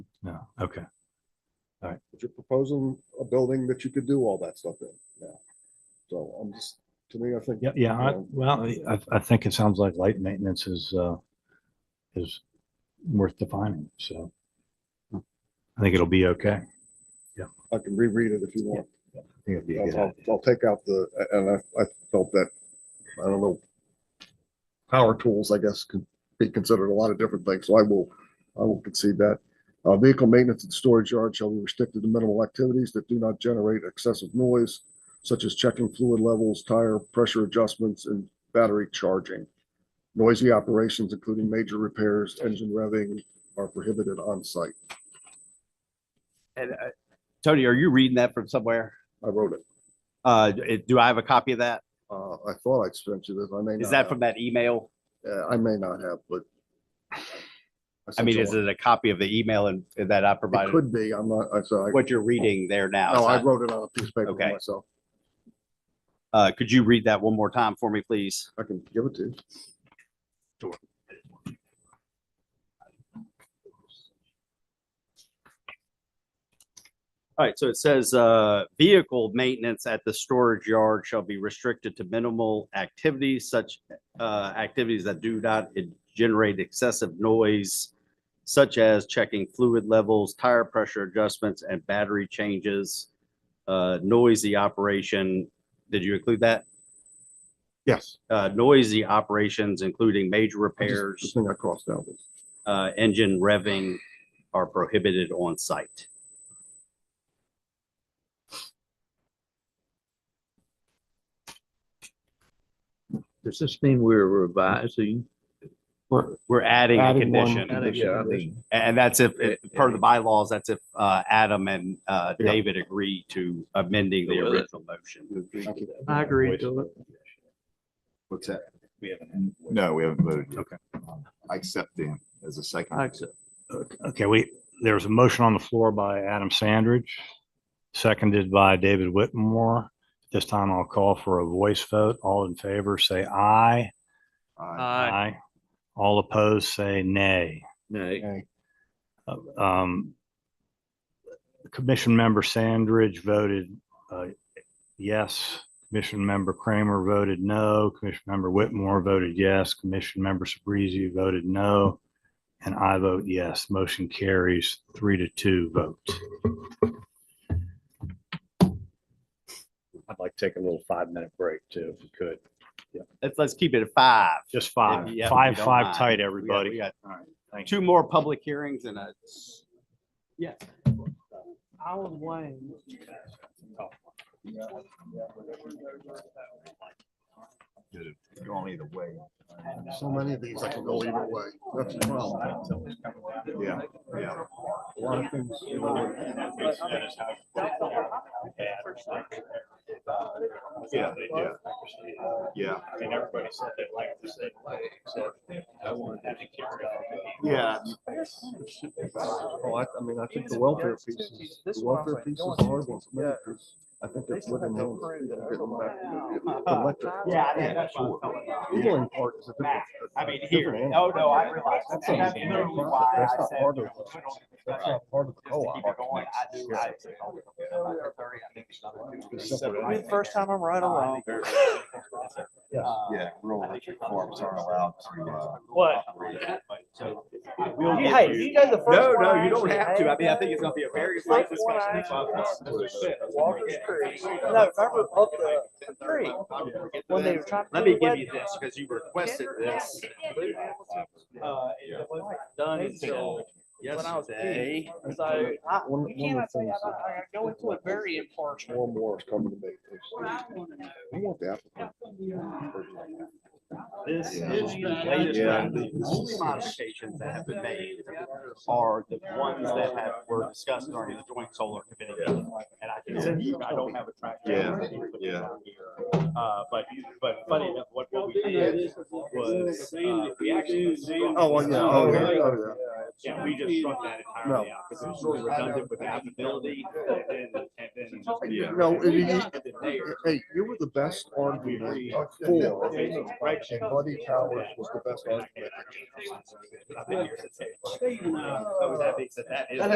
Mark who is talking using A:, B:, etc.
A: Okay,
B: But you're proposing a building that you could do all that stuff in, yeah. So I'm just, to me, I think.
A: yeah, yeah, I-
B: Um,
A: well, I, I think it sounds like light maintenance is, uh, is worth defining, so. I think it'll be okay. I
B: I can reread it if you want.
A: think it'll be a good
B: I'll,
A: idea.
B: I'll take out the, and I, I felt that, I don't know. Power tools, I guess, could be considered a lot of different things, so I will, I will concede that. Uh, vehicle maintenance and storage yard shall be restricted to minimal activities that do not generate excessive noise, such as checking fluid levels, tire pressure adjustments, and battery charging. Noisy operations, including major repairs, engine revving, are prohibited on site.
C: And uh, Tony, are you reading that from somewhere?
B: I wrote it.
C: Uh, it- do I have a copy of that?
B: Uh, I thought I'd sent you this, I may not.
C: Is that
B: have.
C: from that email?
B: Uh, I may not have, but.
C: I mean, is
B: sent you
C: it a copy of the email and and that I
B: one. It
C: provided?
B: could be, I'm not, I, so I,
C: What you're reading there now?
B: no,
C: is
B: I
C: that-
B: wrote it on a piece of paper
C: Okay.
B: myself.
C: Uh, could you read that one more time for me, please?
B: I can give it to you.
C: All right, so it says, uh, vehicle maintenance at the storage yard shall be restricted to minimal activities such, uh, activities that do not en- generate excessive noise, such as checking fluid levels, tire pressure adjustments, and battery changes, uh, noisy operation. Did you include that?
B: Yes.
C: Uh, noisy operations, including major
B: I just-
C: repairs.
B: The thing I crossed out was,
C: uh, engine revving are prohibited on site.
D: Does this mean we're revising?
A: We're-
C: We're adding a
A: Adding one
C: condition.
A: condition.
C: And
D: Yeah, I think
C: and that's if, if- per the bylaws, that's if, uh, Adam and, uh,
B: Yeah.
C: David agree to amending the
D: Go with it.
C: original motion.
B: thank you.
D: I agree to it.
E: What's that?
A: We haven't had-
E: No, we haven't voted.
A: Okay.
E: I accept them as a second.
D: I accept.
A: Okay, we, there was a motion on the floor by Adam Sandridge, seconded by David Whitmore. This time I'll call for a voice vote. All in favor, say aye.
C: uh,
E: Aye.
D: Aye.
A: All opposed, say nay.
D: Nay.
A: Uh, um, Commission member Sandridge voted uh, yes. Commission member Kramer voted no. Commission member Whitmore voted yes. Commission member Sabrizi voted no. And I vote yes. Motion carries three to two vote. I'd like to take a little five-minute break too, if we could.
C: Let's, let's keep it at five.
A: Just five,
C: If you- if you
A: five,
C: don't
A: five
C: mind.
A: tight,
C: We got- We
A: everybody.
C: got
A: All right, thank you.
C: two more public hearings and a, yeah.
D: Alan Wayne.
E: Go on either way.
B: So many of these I can go either way. That's the problem.
E: Yeah, yeah.
B: A lot of things. you know,
E: Yeah, yeah. Yeah. Yeah.
B: oh, I, I mean, I think the welfare piece is, the welfare piece is the hard one. for me, 'cause I think that's living room. Getting back to the- the electric. Sure. Healing part is a different.
C: I mean,
B: a
C: here,
B: different animal.
C: oh, no, I realize. that.
B: That's
C: And
B: not
C: That's
B: a
C: literally
B: process.
C: why
B: That's
C: I
B: not
C: said.
B: part of it.
C: put it on the
B: That's
C: budget.
B: not part of the
C: Just to
B: co-op.
C: keep it going, I do, I.
B: Separate.
F: First time I'm right along.
C: Um, oh,
E: Yeah, rural electric farms aren't allowed to. uh,
F: What?
E: operate.
F: Hey, you guys the first.
C: No,
F: one
C: no,
F: I
C: you don't
F: actually
C: have to. I
F: had,
C: mean, I
F: man.
C: think it's gonna be a very
F: First
C: light
F: one I
C: discussion.
F: actually
C: Fuck.
F: had, Walker's Creek. No, remember up the creek when they were trying to.
C: Let
F: do
C: me
F: the
C: give you
F: wedding?
C: this, because you requested this. Uh, it wasn't Done until
F: When I was a
C: yesterday.
F: kid. So I,
B: One-
F: you
B: one
F: can't, I
B: of the
F: say,
B: things
F: I,
B: that-
F: I go into it very impartial.
B: One more is coming to me. We want the applicant.
C: This
E: Yeah.
C: is the latest,
E: Yeah.
C: one. the only modifications that have been made are the ones that have, were discussed during the joint solar committee. meeting. And I can send you, I don't have a track.
E: Yeah, yeah.
C: Uh, but, but funny enough, what, what we did was, uh, we actually.
B: Oh, well, yeah, oh, yeah, oh,
C: Yeah, we just struck that entirely out, because it was sort of redundant with applicability, and then, and then.
B: yeah.
E: Yeah.
B: No, it- it-
C: And then
B: Hey,
C: there.
B: hey, you were the best argument of four. And Buddy Towers was the best argument.
C: uh, I've been here since. April. So with that being said, that is.